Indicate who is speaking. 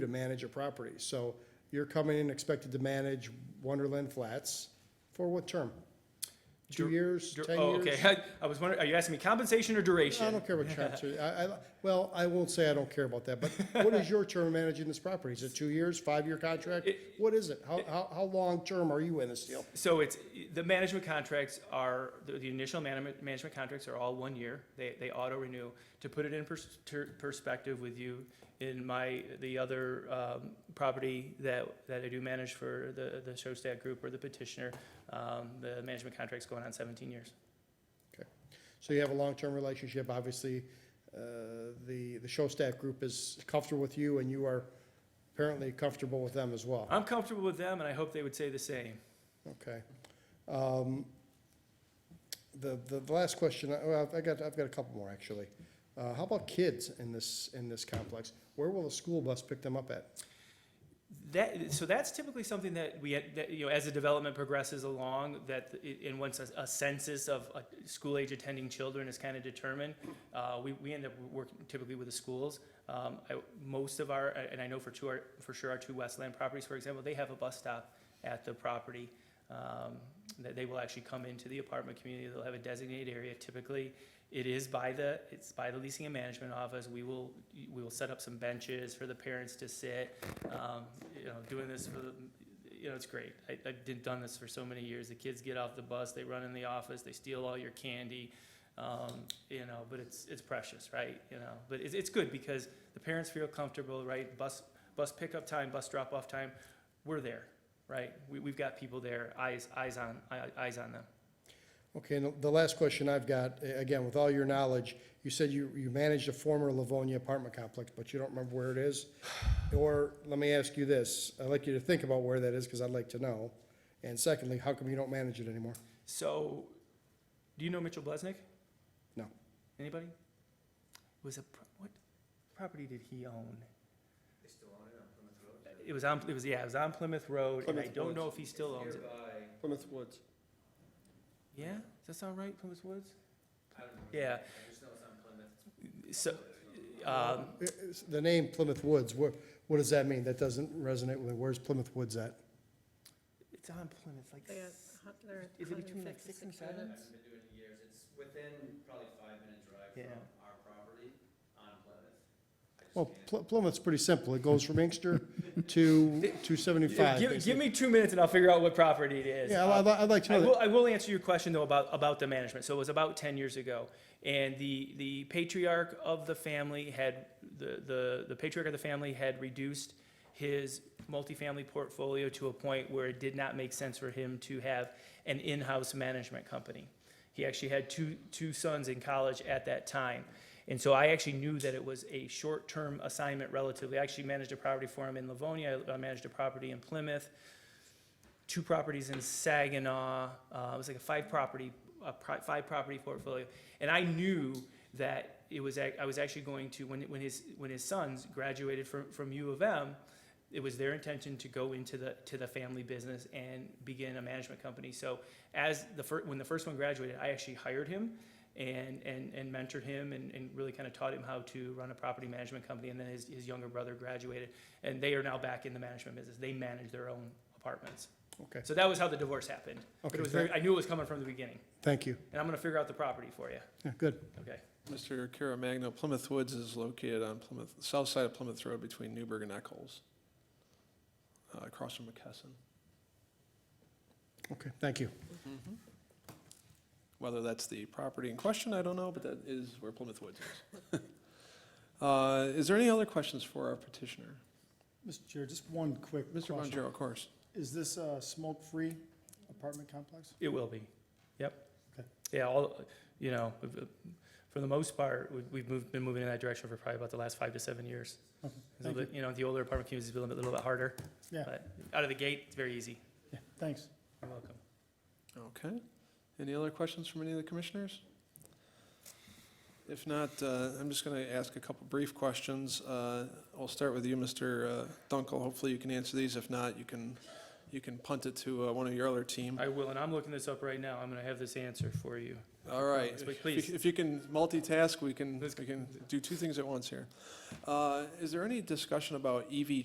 Speaker 1: manage a property. So you're coming in expected to manage Wonderland Flats for what term? Two
Speaker 2: Dur-
Speaker 1: years,
Speaker 2: Dur-
Speaker 1: 10
Speaker 2: oh,
Speaker 1: years?
Speaker 2: okay. I was wondering, are you asking me compensation or duration?
Speaker 1: I don't care what term, to- I, I, well, I won't say I don't care about that, but what is your term managing this property? Is it two years, five-year contract?
Speaker 2: It-
Speaker 1: What is it? How, how, how long-term are you in this deal?
Speaker 2: So it's, the management contracts are, the the initial management, management contracts are all one year. They, they auto renew. To put it in pers- ter- perspective with you, in my, the other um, property that, that I do manage for the, the Showstack Group or the petitioner, um, the management contract's going on 17 years.
Speaker 1: So you have a long-term relationship, obviously, uh, the, the show staff group is comfortable with you, and you are apparently comfortable with them as well,
Speaker 2: I'm comfortable with them, and I hope they would say the same.
Speaker 1: okay? Um, The, the the last question, I- well, I got, I've got a couple more, actually. Uh, How about kids in this, in this complex? Where will the school bus pick them up at?
Speaker 2: That, so that's typically something that we, had- that, you know, as the development progresses along, that, i- and once a, a census of uh, school-age attending children is kind of determined, uh, we, we end up working typically with the schools. Um, I, most of our, and I know for two, our- for sure, our two Westland properties, for example, they have a bus stop at the property. Um, that they will actually come into the apartment community, they'll have a designated area typically. It is by the, it's by the leasing and management office, we will, we will set up some benches for the parents to sit um, you know, doing this for, the you know, it's great. I, I've did- done this for so many years. The kids get off the bus, they run in the office, they steal all your candy, um, you know, but it's, it's precious, right? You know, but it's, it's good because the parents feel comfortable, right? Bus, bus pickup time, bus drop off time, we're there, right? We, we've got people there, eyes, eyes on, eye- eyes on them.
Speaker 1: Okay, and the last question I've got, a- again, with all your knowledge, you said you, you managed a former Livonia apartment complex, but you don't remember where it is? Or, let me ask you this, I'd like you to think about where that is, because I'd like to know. And secondly, how come you don't manage it anymore?
Speaker 2: So, do you know Mitchell Blesnick?
Speaker 1: No.
Speaker 2: Anybody? Was a, pro- what property did he own?
Speaker 3: They still own it on Plymouth Road?
Speaker 2: It was on, it was, yeah, it was on Plymouth Road, and I
Speaker 4: Plymouth
Speaker 2: don't know
Speaker 4: Woods.
Speaker 2: if he still owns it.
Speaker 3: Nearby,
Speaker 4: Plymouth Woods.
Speaker 2: Yeah, does that sound right, Plymouth Woods?
Speaker 3: I don't know.
Speaker 2: Yeah.
Speaker 3: I just know it's on Plymouth.
Speaker 2: So,
Speaker 1: Uh,
Speaker 2: um,
Speaker 1: it's- The name Plymouth Woods, what, what does that mean? That doesn't resonate with, me. where's Plymouth Woods at?
Speaker 2: it's on Plymouth, like,
Speaker 5: They got
Speaker 2: s-
Speaker 5: a hun- they're at
Speaker 2: is it between like six and
Speaker 5: 156
Speaker 3: I
Speaker 2: seven?
Speaker 5: units.
Speaker 3: haven't been doing it in years. It's within probably five minute drive
Speaker 2: Yeah.
Speaker 3: from our property on Plymouth. I just
Speaker 1: Well,
Speaker 3: can't-
Speaker 1: Pl- Plymouth's pretty simple, it goes from Inkster to two
Speaker 2: Yeah,
Speaker 1: seventy-five.
Speaker 2: Give, give me two minutes and I'll figure out what property it is.
Speaker 1: Yeah,
Speaker 2: Uh,
Speaker 1: I'd, I'd like to
Speaker 2: I
Speaker 1: know that.
Speaker 2: will, I will answer your question though about, about the management. So it was about ten years ago. And the, the patriarch of the family had, the, the, the patriarch of the family had reduced his multifamily portfolio to a point where it did not make sense for him to have an in-house management company. He actually had two, two sons in college at that time. And so I actually knew that it was a short-term assignment relatively. I actually managed a property for him in Livonia. I- I managed a property in Plymouth two properties in Saginaw. Uh, it was like a five property, a pro- five property portfolio. And I knew that it was, ac- I was actually going to, when, when his, when his sons graduated from, from U of M, it was their intention to go into the, to the family business and begin a management company. So as the fir, when the first one graduated, I actually hired him and, and, and mentored him and, and really kind of taught him how to run a property management company. And then his, his younger brother graduated and they are now back in the management business. They manage their own apartments.
Speaker 1: Okay,
Speaker 2: So that was how the divorce happened. But
Speaker 1: Okay,
Speaker 2: it was
Speaker 1: thank-
Speaker 2: very, I knew it was coming from the beginning,
Speaker 1: thank you,
Speaker 2: and I'm gonna figure out the property for you,
Speaker 1: yeah, good.
Speaker 2: okay?
Speaker 4: Mr. Caremagno, Plymouth Woods is located on Plymouth, south side of Plymouth Road between Newburgh and Eccles, uh, across from McKesson.
Speaker 1: Okay, thank you.
Speaker 4: Whether that's the property in question, I don't know, but that is where Plymouth Woods is. Uh, Is there any other questions for our petitioner?
Speaker 6: Mr. Chair, just one quick
Speaker 4: Mr.
Speaker 6: question.
Speaker 4: Bonjero, of course.
Speaker 6: Is this a smoke-free apartment complex?
Speaker 2: It will be, yep.
Speaker 6: Okay.
Speaker 2: Yeah, all, you know, uh, for the most part, we- we've moved, been moving in that direction for probably about the last five to seven years.
Speaker 6: Okay,
Speaker 2: It's a
Speaker 6: Thank you.
Speaker 2: bit- You know, the older apartment communities is a little bit, little bit harder.
Speaker 6: Yeah.
Speaker 2: But out of the gate, it's very easy.
Speaker 6: Yeah, Thanks.
Speaker 2: You're welcome.
Speaker 4: Okay. Any other questions from any of the commissioners? If not, uh, I'm just going to ask a couple brief questions. Uh, I'll start with you, Mr. uh, Dunkel. Hopefully you can answer these. If not, you can, you can punt it to uh, one of your other team.
Speaker 2: I will, and I'm looking this up right now, I'm gonna have this answer for you.
Speaker 4: All right.
Speaker 2: Please,
Speaker 4: If
Speaker 2: please.
Speaker 4: you- If you can multitask, we can,
Speaker 2: Let's-
Speaker 4: we can do two things at once here. Uh, Is there any discussion about EV